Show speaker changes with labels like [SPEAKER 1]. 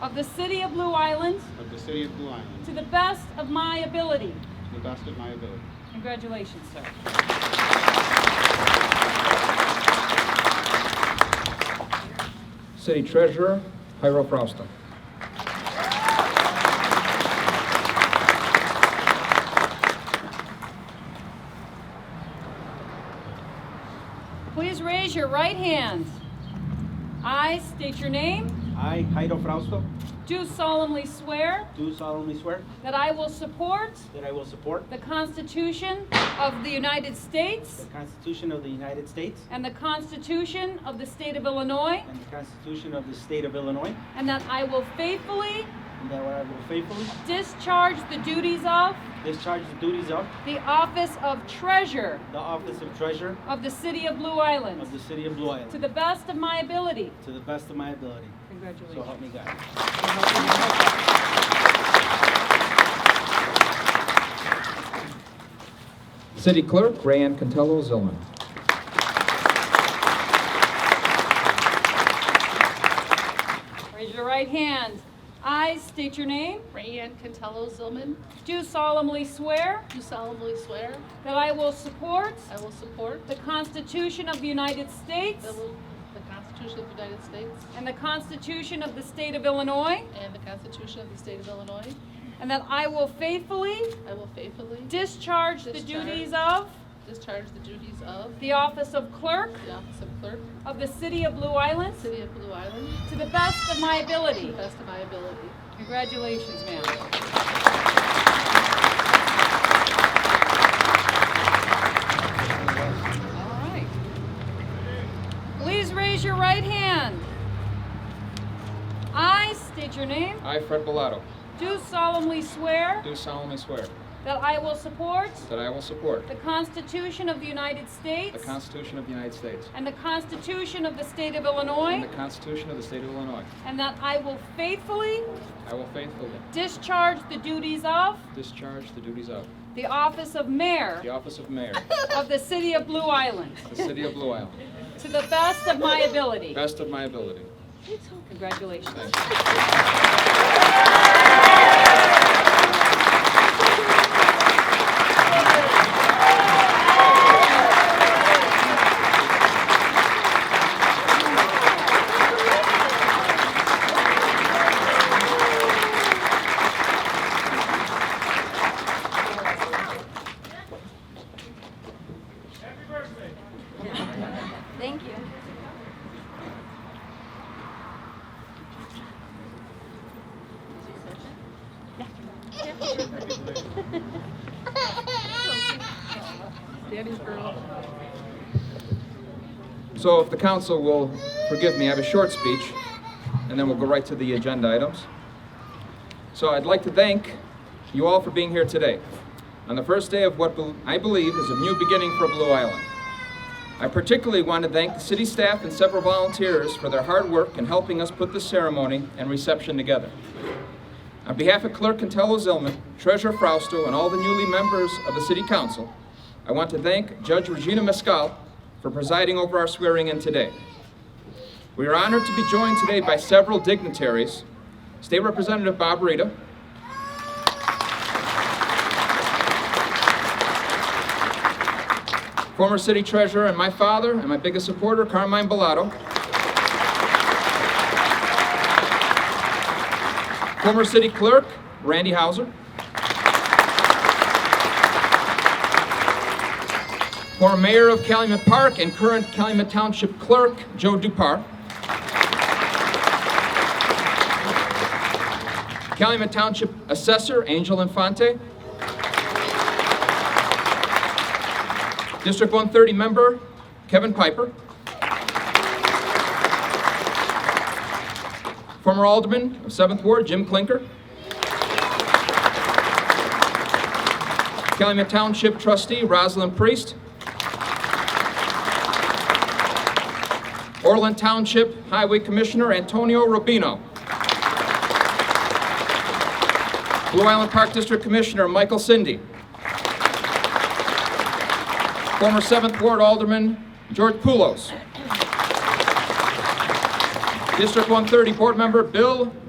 [SPEAKER 1] of the City of Blue Island
[SPEAKER 2] of the City of Blue Island
[SPEAKER 1] to the best of my ability.
[SPEAKER 2] to the best of my ability.
[SPEAKER 1] Congratulations, sir.
[SPEAKER 3] City Treasurer, Jairo Fausto.
[SPEAKER 1] Please raise your right hand. I state your name.
[SPEAKER 4] I, Jairo Frausto,
[SPEAKER 1] Do solemnly swear
[SPEAKER 4] do solemnly swear
[SPEAKER 1] that I will support
[SPEAKER 4] that I will support
[SPEAKER 1] the Constitution of the United
[SPEAKER 4] the
[SPEAKER 1] States
[SPEAKER 4] Constitution of the United States
[SPEAKER 1] and the Constitution of the State of Illinois,
[SPEAKER 4] and the Constitution of the State of Illinois,
[SPEAKER 1] and that I will faithfully
[SPEAKER 4] and that I will faithfully
[SPEAKER 1] discharge the duties of
[SPEAKER 4] discharge the duties of
[SPEAKER 1] the Office of Treasurer
[SPEAKER 4] the Office of Treasurer
[SPEAKER 1] of the City of Blue Island
[SPEAKER 4] of the City of Blue
[SPEAKER 1] to
[SPEAKER 4] Island
[SPEAKER 1] the best of my ability.
[SPEAKER 4] to the best of my ability. So
[SPEAKER 1] Congratulations.
[SPEAKER 4] help me God.
[SPEAKER 3] City Clerk, Rayanne Contello Zilman.
[SPEAKER 1] Raise your right hand. I state your name.
[SPEAKER 5] Rayanne Contello Zillman,
[SPEAKER 1] Do solemnly swear
[SPEAKER 5] do solemnly swear
[SPEAKER 1] that I will support
[SPEAKER 5] I will support
[SPEAKER 1] the Constitution of the United States
[SPEAKER 5] the the Constitution of the United States
[SPEAKER 1] and the Constitution of the State of Illinois,
[SPEAKER 5] and the Constitution of the State of Illinois.
[SPEAKER 1] and that I will faithfully
[SPEAKER 5] I will faithfully
[SPEAKER 1] discharge the
[SPEAKER 5] Discharge.
[SPEAKER 1] duties of
[SPEAKER 5] discharge the duties of
[SPEAKER 1] the office of clerk
[SPEAKER 5] the Office of Clerk,
[SPEAKER 1] of the City of Blue Island
[SPEAKER 5] City of Blue Island,
[SPEAKER 1] to the best of my
[SPEAKER 5] to the
[SPEAKER 1] ability.
[SPEAKER 5] best of my ability.
[SPEAKER 1] Congratulations, ma'am. All right. Please raise your right hand. I state your name.
[SPEAKER 3] I, Fred Bellato,
[SPEAKER 1] Do solemnly swear
[SPEAKER 3] do solemnly swear
[SPEAKER 1] that I will support
[SPEAKER 3] that I will support
[SPEAKER 1] the Constitution of the United
[SPEAKER 3] the
[SPEAKER 1] States
[SPEAKER 3] Constitution of the United States
[SPEAKER 1] and the Constitution of the State of
[SPEAKER 3] and
[SPEAKER 1] Illinois,
[SPEAKER 3] the Constitution of the State of Illinois.
[SPEAKER 1] and that I will faithfully
[SPEAKER 3] I will faithfully
[SPEAKER 1] discharge the duties of
[SPEAKER 3] discharge the duties of
[SPEAKER 1] the office of mayor
[SPEAKER 3] the office of mayor
[SPEAKER 1] of the City of Blue Island
[SPEAKER 3] of the City of Blue Island,
[SPEAKER 1] to the best of my ability.
[SPEAKER 3] best of my ability.
[SPEAKER 1] Congratulations. Thank you.
[SPEAKER 3] So if the council will forgive me, I have a short speech, and then we'll go right to the agenda items. So I'd like to thank you all for being here today, on the first day of what bel- I believe is a new beginning for Blue Island. I particularly want to thank the city staff and several volunteers for their hard work in helping us put this ceremony and reception together. On behalf of Clerk Contello Zillman, Treasurer Frausto, and all the newly members of the City Council, I want to thank Judge Regina Mescal for presiding over our swearing-in today. We are honored to be joined today by several dignitaries, State Representative Bob Rita, former City Treasurer and my father and my biggest supporter, Carmine Bellato, former City Clerk Randy Hauser, former Mayor of Calumet Park and current Calumet Township Clerk Joe Dupar, Calumet Township Assessor Angel Infante, District 130 Member Kevin Piper, Former Alderman of 7th Ward, Jim Clinker. Calumet Township Trustee, Rosalind Priest. Orland Township Highway Commissioner, Antonio Rubino. Blue Island Park District Commissioner, Michael Cindy. Former 7th Ward Alderman, George Poulos. District 130 Board Member, Bill